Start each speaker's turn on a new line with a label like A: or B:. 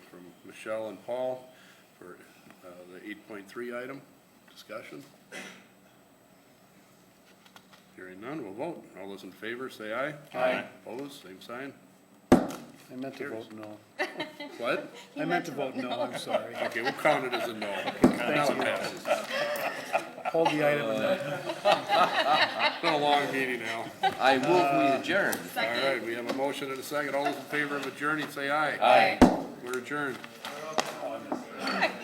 A: Michelle and Paul for uh, the eight point three item. Discussion? Hearing none, we'll vote. All those in favor, say aye. Aye. Opposed, same sign.
B: I meant to
A: Carries.
B: vote no.
A: What?
B: I meant to vote no, I'm sorry.
A: Okay, we'll count it as a no. Now it passes.
B: Hold the item and then.
A: It's been a long meeting now.
C: I move we adjourn.
A: All right, we have a motion and a second. All those in favor of adjourning, say aye.
C: Aye.
A: We're adjourned.